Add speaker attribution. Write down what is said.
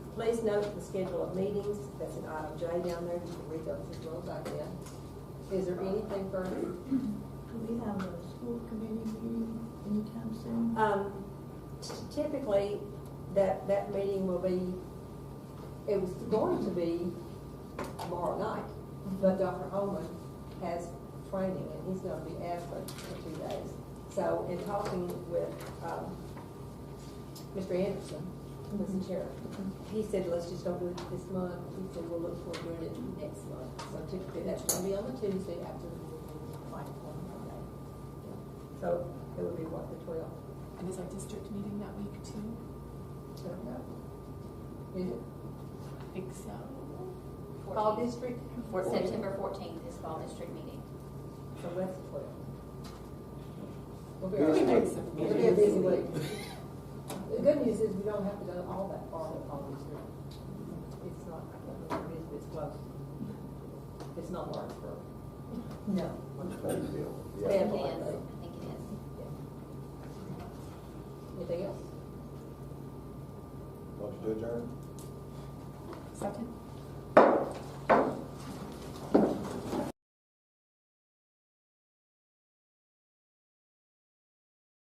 Speaker 1: Please note the schedule of meetings, that's an item J down there, you can read those as well back then. Is there anything further?
Speaker 2: Do we have a school committee meeting anytime soon?
Speaker 1: Um, t- typically, that, that meeting will be, it was going to be tomorrow night, but Dr. Holman has training, and he's gonna be absent for two days. So, in talking with, um, Mr. Anderson, Mr. Chair, he said, let's just don't do it this month, he said, we'll look forward to doing it next month. So typically, that's gonna be on the Tuesday after the final one Friday. So, it would be what, the twelfth?
Speaker 3: And is our district meeting that week too?
Speaker 1: Don't know. Is it
Speaker 3: I think so.
Speaker 1: Fall
Speaker 4: 14th.
Speaker 1: district?
Speaker 4: For September fourteenth is fall district meeting.
Speaker 1: So that's twelve. We'll be
Speaker 3: We
Speaker 1: all right.
Speaker 3: made some
Speaker 1: It'll be a busy week.
Speaker 3: meetings.
Speaker 1: The good news is we don't have to go all that far to fall district. It's not, I can't remember what it is, but it's close. It's not Lawrenceburg. No.
Speaker 5: Yeah.
Speaker 4: It
Speaker 1: Bad
Speaker 4: is,
Speaker 1: luck, though.
Speaker 4: I think it is.
Speaker 1: Anything else?
Speaker 5: Motion to adjourn?
Speaker 3: Second?